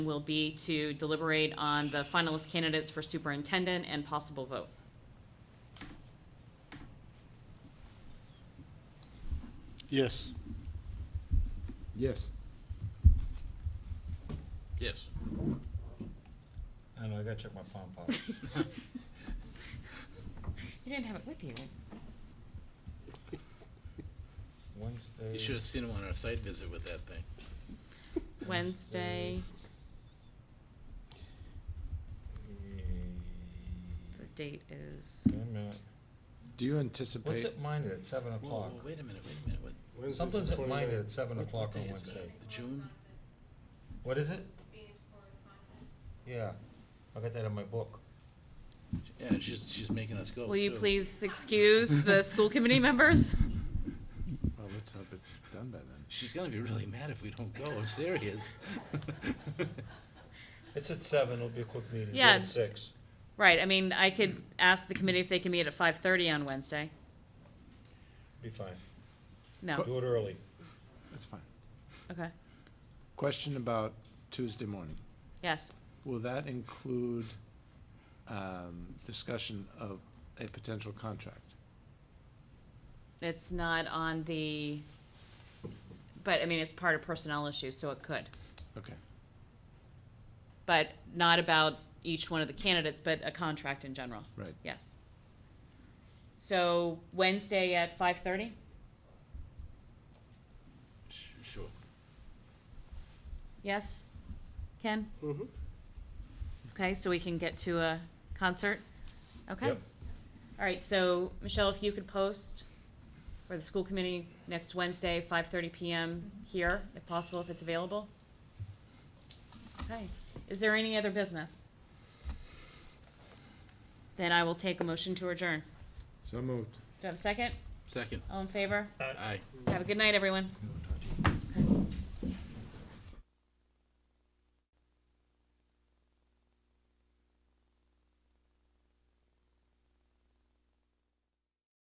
will be to deliberate on the finalist candidates for superintendent and possible vote. Yes. Yes. Yes. I don't know, I gotta check my phone, Paul. You didn't have it with you. Wednesday. You should have seen him on our site visit with that thing. Wednesday, the date is, Wait a minute. Do you What's anticipate, it minded at seven Whoa, o'clock? whoa, wait a minute, wait a minute. What, Something's at minded at seven what- o'clock what on day is that? Wednesday. The June? What is it? Yeah, I got that in my book. Yeah, and she's, she's making us go. will you too. please excuse the school committee members? well, let's hope it's done by then. She's gonna be really mad if we don't go. I'm serious. It's at seven, it'll be a quick meeting, do it Yeah. at six. Right, I mean, I could ask the committee if they can meet at five thirty on Wednesday. Be fine. No, Do it early. That's fine. okay, Question about Tuesday morning. yes, Will that include um, discussion of a potential contract? it's not on the, but I mean, it's part of personnel issues, so it could. Okay, But not about each one of the candidates, but a contract in general. right. Yes. So Wednesday at five thirty? Sh- Sure. Yes? Ken? Mhm. Okay, so we can get to a concert? Okay. Yep. All right, so Michelle, if you could post for the school committee next Wednesday, five thirty PM here, if possible, if it's available? Okay. Is there any other business? Then I will take a motion to adjourn. So moved. Do I have a second? Second. All in favor? Aye. Have a good night, everyone.